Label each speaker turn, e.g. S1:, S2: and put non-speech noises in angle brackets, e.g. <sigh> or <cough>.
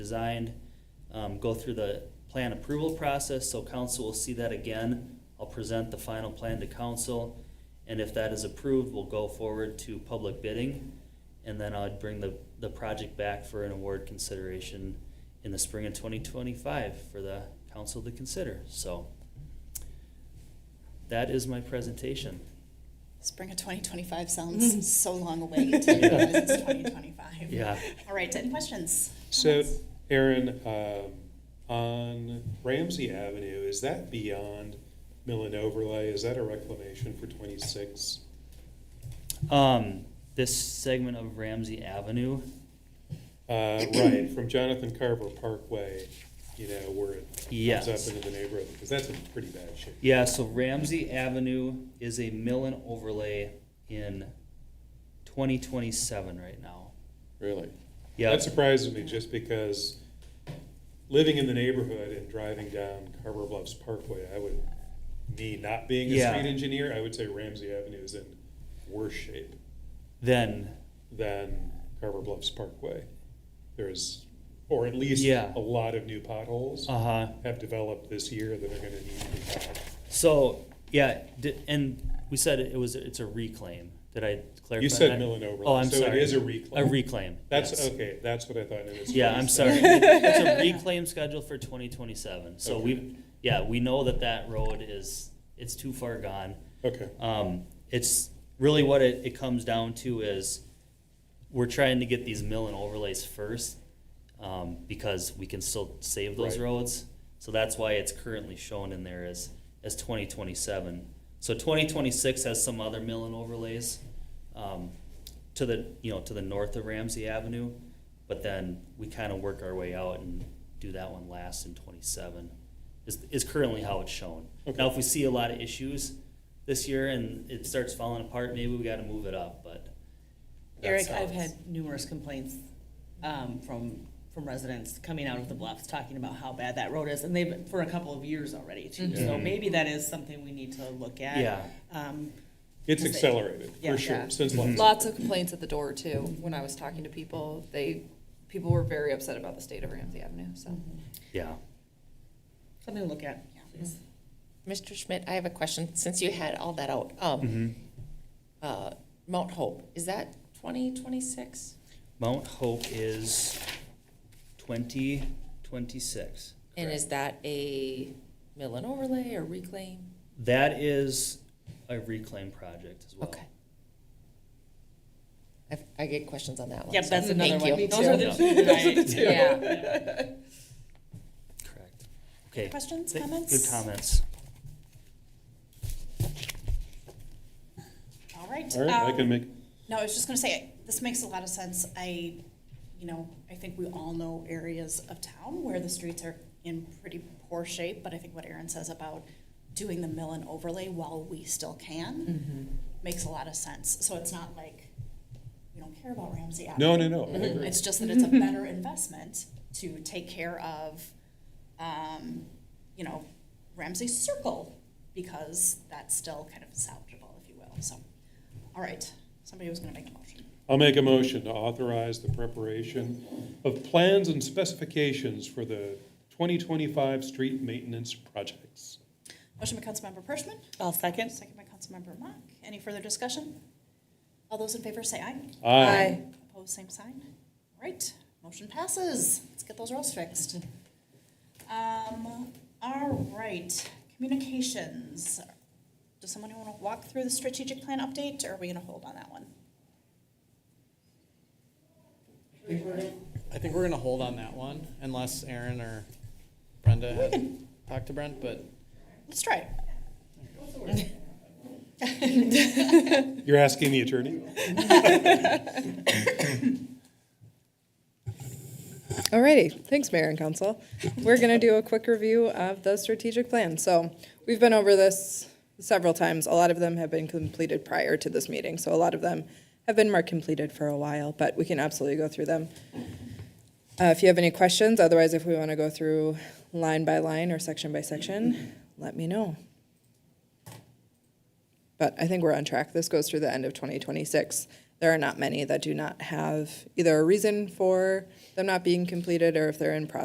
S1: designed, um, go through the plan approval process, so council will see that again. I'll present the final plan to council, and if that is approved, we'll go forward to public bidding. And then I'd bring the, the project back for an award consideration in the spring of twenty twenty-five for the council to consider, so. That is my presentation.
S2: Spring of 2025 sounds so long away. It's
S1: Yeah.
S2: 2025.
S1: Yeah,
S2: All right, any questions?
S3: So,
S2: Comments?
S3: Aaron, um, on Ramsey Avenue, is that beyond mill and overlay? Is that a reclamation for twenty-six?
S1: um, this segment of Ramsey Avenue,
S3: Uh, right, from Jonathan Carver Parkway, you know, where it comes
S1: Yes.
S3: up into the neighborhood, because that's in pretty bad shape.
S1: Yeah, so Ramsey Avenue is a mill and overlay in twenty twenty-seven right now.
S4: Really?
S1: Yeah,
S3: That surprises me, just because living in the neighborhood and driving down Carver Bluffs Parkway, I would, me not being a
S1: Yeah.
S3: street engineer, I would say Ramsey Avenue is in worse shape.
S1: then,
S3: than Carver Bluffs Parkway. There's, or at least
S1: Yeah.
S3: a lot of new potholes
S1: uh-huh,
S3: have developed this year that are going to need to be fixed.
S1: so, yeah, di- and we said it was, it's a reclaim. Did I clarify?
S3: You said
S1: that?
S3: mill and overlay,
S1: Oh, I'm
S3: so
S1: sorry.
S3: it is a reclaim.
S1: A reclaim.
S3: That's
S1: yes.
S3: okay. That's what I thought. and it's
S1: Yeah, I'm
S3: nice. <laughs>
S1: sorry. <laughs> It's a reclaim schedule for twenty twenty-seven, so we,
S3: Okay.
S1: yeah, we know that that road is, it's too far gone.
S3: Okay.
S1: Um, it's really what it, it comes down to is we're trying to get these mill and overlays first um, because we can still save those
S3: Right.
S1: roads. So that's why it's currently shown in there as, as 2027. So 2026 has some other mill and overlays um, to the, you know, to the north of Ramsey Avenue. But then we kind of work our way out and do that one last in 27 is, is currently how it's shown. Now,
S3: Okay.
S1: if we see a lot of issues this year and it starts falling apart, maybe we got to move it up, but. that's
S5: Eric,
S1: how
S5: I've
S1: it's-
S5: had numerous complaints um, from, from residents coming out of the bluffs, talking about how bad that road is, and they've, been for a couple of years already, too. So
S3: Mhm.
S5: maybe that is something we need to look at.
S1: Yeah.
S5: Um,
S3: It's
S5: Is it-
S3: accelerated,
S5: Yeah.
S3: for sure,
S6: Yeah.
S3: since last.
S1: Mm-hmm.
S6: Lots of complaints at the door too, when I was talking to people, they, people were very upset about the state of Ramsey Avenue, so.
S1: Yeah.
S5: Something to look at, please.
S7: Mr. Schmidt, I have a question, since you had all that out.
S1: Mm-hmm.
S7: Um, uh, Mount Hope, is that twenty twenty-six?
S1: Mount Hope is twenty twenty-six.
S7: And is that a mill and overlay or reclaim?
S1: That is a reclaim project as well.
S7: Okay. I've- I get questions on that one.
S5: Yep,
S7: so
S5: that's
S7: thank
S5: another one. <laughs>
S7: you.
S5: Those are the
S1: Yeah.
S5: two that I-
S7: Yeah,
S1: Correct. Okay.
S2: Questions,
S1: Th-
S2: comments?
S1: Good comments.
S2: All right.
S3: All right, I
S2: um,
S3: can make,
S2: No, I was just gonna say, this makes a lot of sense. I, you know, I think we all know areas of town where the streets are in pretty poor shape, but I think what Aaron says about doing the mill and overlay while we still can makes a lot of sense. So it's not like we don't care about Ramsey Avenue.
S3: no, no, no, I
S5: Mm-hmm.
S3: agree.
S2: It's just that it's a better investment to take care of, um, you know, Ramsey Circle because that's still kind of salvageable, if you will. So, all right, somebody was going to make a motion.
S3: I'll make a motion to authorize the preparation of plans and specifications for the 2025 street maintenance projects.
S2: Motion by Councilmember Pershman,
S5: I'll second.
S2: second by Councilmember Mock. Any further discussion? All those in favor say aye.
S3: Aye.
S2: Opposed, same sign. All right, motion passes. Let's get those rules fixed. Um, all right, communications. Does someone want to walk through the strategic plan update, or are we going to hold on that one?
S8: I think we're gonna hold on that one unless Aaron or Brenda had talked to Brent, but
S2: Let's try it.
S3: You're asking the attorney?
S9: Alrighty, thanks, Mayor and Council. We're gonna do a quick review of the strategic plan. So, we've been over this several times. A lot of them have been completed prior to this meeting, so a lot of them have been marked completed for a while, but we can absolutely go through them. Uh, if you have any questions, otherwise if we wanna go through line by line or section by section, let me know. But I think we're on track. This goes through the end of 2026. There are not many that do not have either a reason for them not being completed or if they're in process